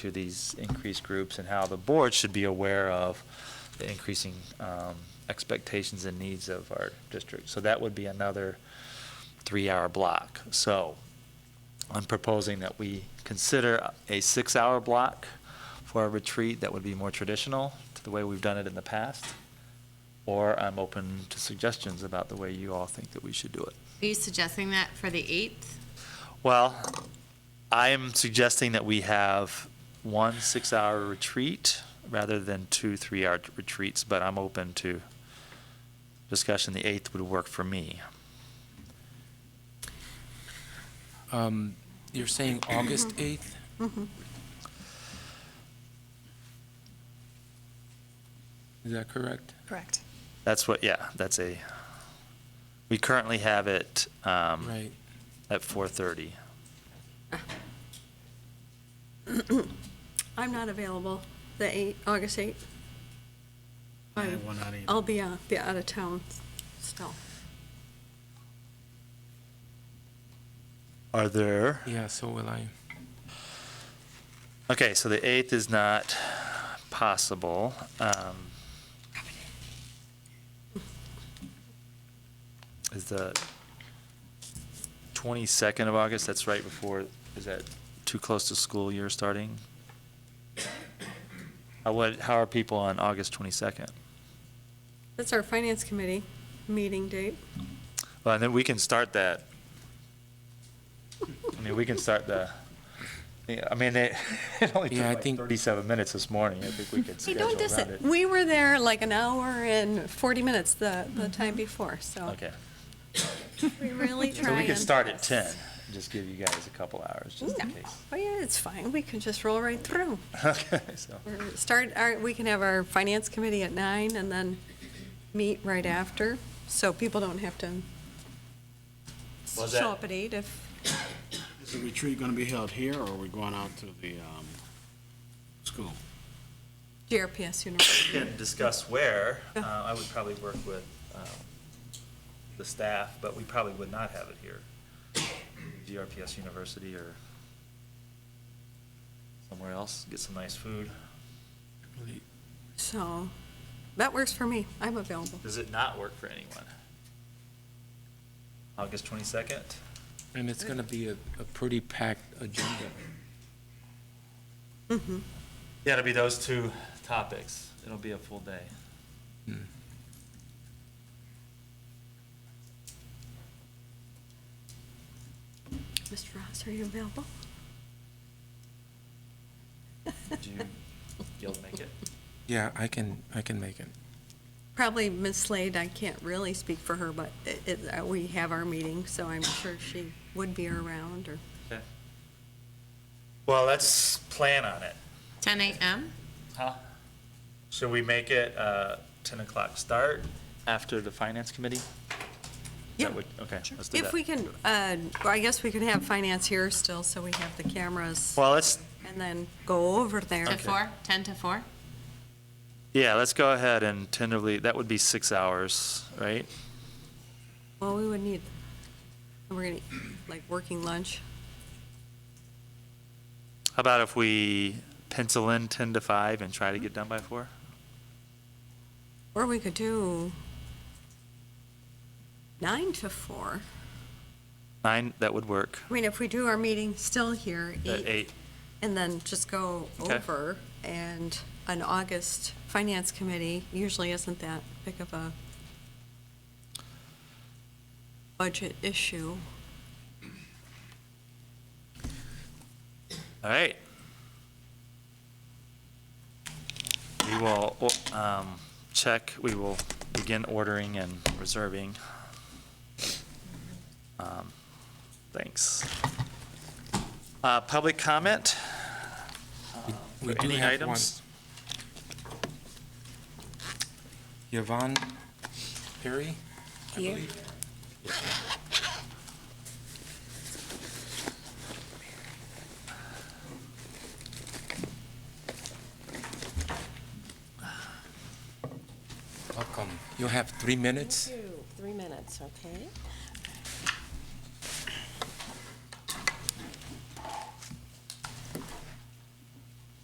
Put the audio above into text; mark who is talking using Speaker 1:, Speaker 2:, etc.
Speaker 1: to these increased groups and how the board should be aware of the increasing um, expectations and needs of our district. So that would be another three-hour block. So I'm proposing that we consider a six-hour block for a retreat that would be more traditional to the way we've done it in the past, or I'm open to suggestions about the way you all think that we should do it.
Speaker 2: Are you suggesting that for the 8th?
Speaker 1: Well, I am suggesting that we have one six-hour retreat rather than two three-hour retreats, but I'm open to discussion. The eighth would work for me.
Speaker 3: Um, You're saying August 8th? Is that correct?
Speaker 4: Correct.
Speaker 1: That's what, yeah, that's a, we currently have it um,
Speaker 3: Right.
Speaker 1: at 4:30.
Speaker 5: I'm not available the 8, August 8th. I- I'll be out, be out of town still.
Speaker 1: Are there?
Speaker 3: Yeah, so will I.
Speaker 1: Okay, so the eighth is not possible. Um, Is the twenty-second of August, that's right before, is that too close to school year starting? How, what, how are people on August twenty-second?
Speaker 5: That's our finance committee meeting date.
Speaker 1: Well, and then we can start that. I mean, we can start the, yeah, I mean, it, it only took
Speaker 3: Yeah, I
Speaker 1: like
Speaker 3: think-
Speaker 1: thirty-seven minutes this morning. I think we could
Speaker 5: Hey,
Speaker 1: schedule
Speaker 5: don't
Speaker 1: around
Speaker 5: diss
Speaker 1: it.
Speaker 5: it. We were there like an hour and 40 minutes the, the time before, so
Speaker 1: Okay,
Speaker 5: we really try
Speaker 1: so we could
Speaker 5: and-
Speaker 1: start at ten, and just give you guys a couple hours, just in
Speaker 5: Yeah.
Speaker 1: case.
Speaker 5: Oh, yeah, it's fine. We can just roll right through.
Speaker 1: Okay, so,
Speaker 5: Or Start, our- we can have our finance committee at 9 and then meet right after, so people don't have to
Speaker 1: Was that-
Speaker 5: show up at 8 if
Speaker 6: Is the retreat going to be held here, or are we going out to the um, school?
Speaker 5: GRPS University.
Speaker 1: we can discuss where, uh,
Speaker 5: Yeah.
Speaker 1: I would probably work with, um, the staff, but we probably would not have it here. GRPS University or somewhere else, get some nice food.
Speaker 3: Really-
Speaker 5: So that works for me. I'm available.
Speaker 1: Does it not work for anyone? August twenty-second?
Speaker 3: And it's going to be a a pretty packed agenda.
Speaker 1: Yeah, it'll be those two topics. It'll be a full day.
Speaker 3: Hmm.
Speaker 5: Mr. Ross, are you available?
Speaker 1: Do you, you'll make it?
Speaker 3: Yeah, I can, I can make it.
Speaker 5: Probably Ms. Slade, I can't really speak for her, but it- it, uh, we have our meeting, so I'm sure she would be around or,
Speaker 1: Okay. Well, let's plan on it.
Speaker 2: 10 a.m.?
Speaker 1: Huh? Should we make it uh, 10 o'clock start? After the finance committee? Is
Speaker 5: Yeah.
Speaker 1: that what- Okay, let's do
Speaker 5: if we
Speaker 1: that.
Speaker 5: can, uh, I guess we could have finance here still, so we have the cameras
Speaker 1: Well, let's,
Speaker 5: and then go over there.
Speaker 2: To 4? 10 to 4?
Speaker 1: yeah, let's go ahead and tentatively, that would be six hours, right?
Speaker 5: Well, we would need, we're gonna, like, working lunch.
Speaker 1: How about if we pencil in 10 to 5 and try to get done by 4?
Speaker 5: Or we could do nine to four.
Speaker 1: 9, that would work.
Speaker 5: I mean, if we do our meeting still here,
Speaker 1: At
Speaker 5: eight,
Speaker 1: 8,
Speaker 5: and then just go
Speaker 1: Okay.
Speaker 5: over, and an August finance committee usually isn't that big of a budget issue.
Speaker 1: all right. We will um, check, we will begin ordering and reserving. Um, Thanks. Uh, Public comment?
Speaker 3: We
Speaker 1: for
Speaker 3: do
Speaker 1: Uh, any
Speaker 3: have one.
Speaker 1: items?
Speaker 3: Yvonne Perry, I
Speaker 4: Here.
Speaker 3: believe. Welcome. You'll have three minutes.
Speaker 4: Three minutes, okay?